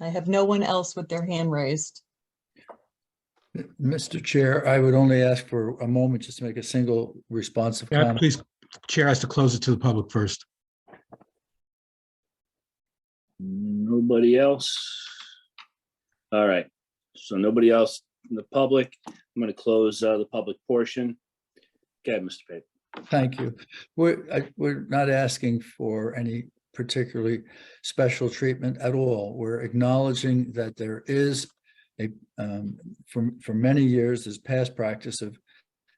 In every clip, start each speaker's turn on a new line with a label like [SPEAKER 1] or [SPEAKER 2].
[SPEAKER 1] I have no one else with their hand raised.
[SPEAKER 2] Mr. Chair, I would only ask for a moment just to make a single responsive
[SPEAKER 3] Yeah,
[SPEAKER 2] comment.
[SPEAKER 3] please, Chair has to close it to the public first.
[SPEAKER 4] Nobody else? All right, so nobody else in the public. I'm gonna close uh, the public portion. Okay, Mr. Pape.
[SPEAKER 2] Thank you. We're, I, we're not asking for any particularly special treatment at all. We're acknowledging that there is a, um, for, for many years, this past practice of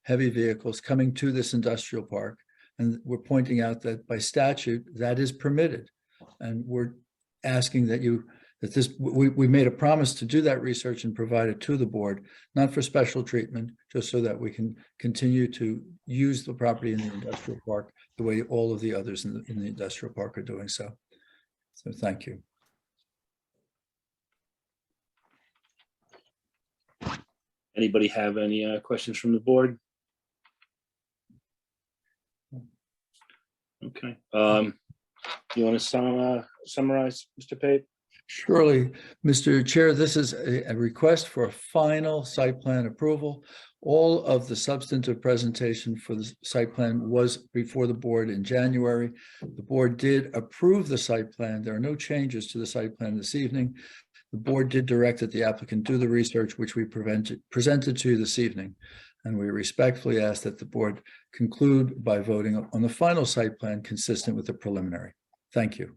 [SPEAKER 2] heavy vehicles coming to this industrial park. And we're pointing out that by statute, that is permitted. And we're asking that you, that this, we, we made a promise to do that research and provide it to the board, not for special treatment, just so that we can continue to use the property in the industrial park the way all of the others in the, in the industrial park are doing so. So thank you.
[SPEAKER 4] Anybody have any uh, questions from the board? Okay, um, you want to sum, uh, summarize, Mr. Pape?
[SPEAKER 2] Surely, Mr. Chair, this is a, a request for a final site plan approval. All of the substantive presentation for the site plan was before the board in January. The board did approve the site plan. There are no changes to the site plan this evening. The board did direct that the applicant do the research, which we prevented, presented to you this evening. And we respectfully ask that the board conclude by voting on the final site plan consistent with the preliminary. Thank you.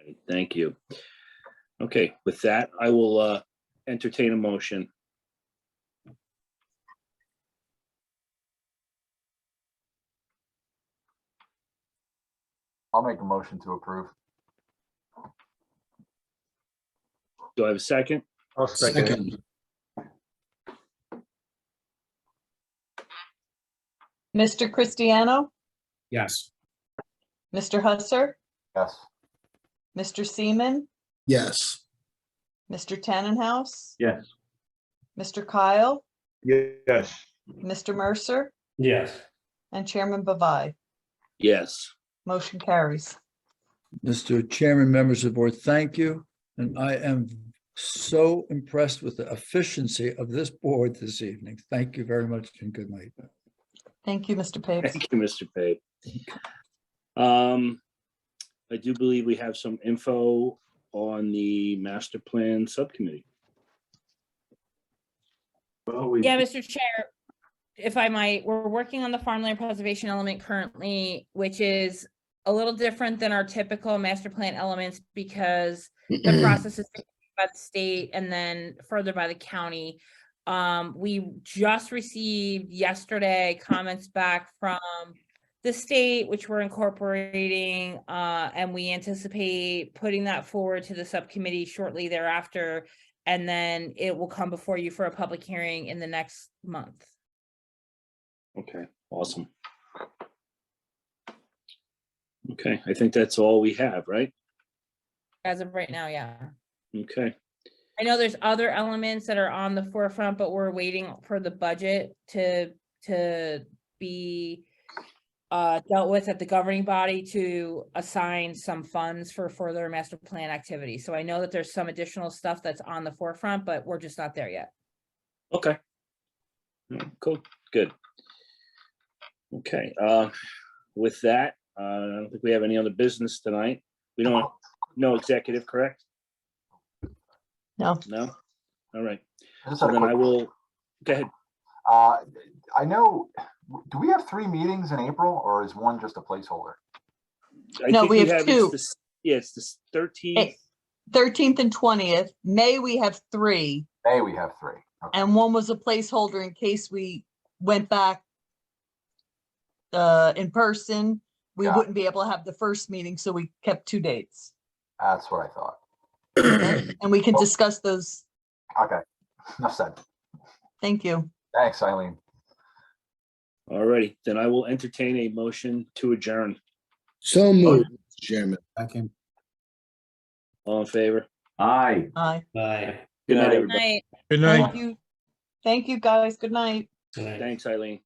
[SPEAKER 4] Alright, Thank you. Okay, with that, I will uh, entertain a motion.
[SPEAKER 5] I'll make a motion to approve.
[SPEAKER 4] Do I have a second?
[SPEAKER 5] I'll
[SPEAKER 3] Second.
[SPEAKER 1] Mr. Cristiano,
[SPEAKER 3] Yes.
[SPEAKER 1] Mr. Husser,
[SPEAKER 5] Yes.
[SPEAKER 1] Mr. Seaman,
[SPEAKER 6] Yes.
[SPEAKER 1] Mr. Tannenhouse.
[SPEAKER 5] Yes.
[SPEAKER 1] Mr. Kyle,
[SPEAKER 5] Yes.
[SPEAKER 1] Mr. Mercer,
[SPEAKER 5] Yes.
[SPEAKER 1] and Chairman Bavai.
[SPEAKER 4] Yes.
[SPEAKER 1] Motion carries.
[SPEAKER 2] Mr. Chairman, members of the board, thank you. And I am so impressed with the efficiency of this board this evening. Thank you very much and good night.
[SPEAKER 1] Thank you, Mr. Papes.
[SPEAKER 4] Thank you, Mr. Pape. Um, I do believe we have some info on the master plan subcommittee.
[SPEAKER 5] Well, we.
[SPEAKER 7] Yeah, Mr. Chair, if I might, we're working on the farmland preservation element currently, which is a little different than our typical master plan elements because the process is dictated by the state and then further by the county. Um, we just received yesterday comments back from the state, which we're incorporating, uh, and we anticipate putting that forward to the subcommittee shortly thereafter. And then it will come before you for a public hearing in the next month.
[SPEAKER 4] Okay, awesome. Okay, I think that's all we have, right?
[SPEAKER 7] As of right now, yeah.
[SPEAKER 4] Okay,
[SPEAKER 7] I know there's other elements that are on the forefront, but we're waiting for the budget to, to be uh, dealt with at the governing body to assign some funds for further master plan activity. So I know that there's some additional stuff that's on the forefront, but we're just not there yet.
[SPEAKER 4] okay. Mm, Cool, good. Okay, uh, with that, uh, I don't think we have any other business tonight. We don't, no executive, correct?
[SPEAKER 1] No.
[SPEAKER 4] No? All right,
[SPEAKER 5] Just
[SPEAKER 4] so
[SPEAKER 5] had a
[SPEAKER 4] then
[SPEAKER 5] quick-
[SPEAKER 4] I will, go ahead.
[SPEAKER 5] Uh, I know, do we have three meetings in April or is one just a placeholder?
[SPEAKER 4] I
[SPEAKER 1] No,
[SPEAKER 4] think
[SPEAKER 1] we have
[SPEAKER 4] it's
[SPEAKER 1] two.
[SPEAKER 4] the s- Yeah, it's the thirteenth.
[SPEAKER 1] Eight. 13th and 20th, May, we have three,
[SPEAKER 5] May we have three. Okay.
[SPEAKER 1] and one was a placeholder in case we went back uh, in person, we
[SPEAKER 5] Yeah.
[SPEAKER 1] wouldn't be able to have the first meeting, so we kept two dates.
[SPEAKER 5] That's what I thought.
[SPEAKER 1] And we can discuss those.
[SPEAKER 5] Okay, enough said.
[SPEAKER 1] Thank you.
[SPEAKER 5] Thanks, Eileen.
[SPEAKER 4] Alrighty, then I will entertain a motion to adjourn.
[SPEAKER 6] So moved, Mr. Chairman.
[SPEAKER 3] Second.
[SPEAKER 4] All in favor?
[SPEAKER 8] Aye.
[SPEAKER 1] Aye.
[SPEAKER 8] Aye.
[SPEAKER 4] Good night,
[SPEAKER 8] Aye.
[SPEAKER 4] everybody.
[SPEAKER 7] Night.
[SPEAKER 3] Good night.
[SPEAKER 1] Thank you. Thank you, guys. Good night.
[SPEAKER 8] Good night.
[SPEAKER 4] Thanks, Eileen.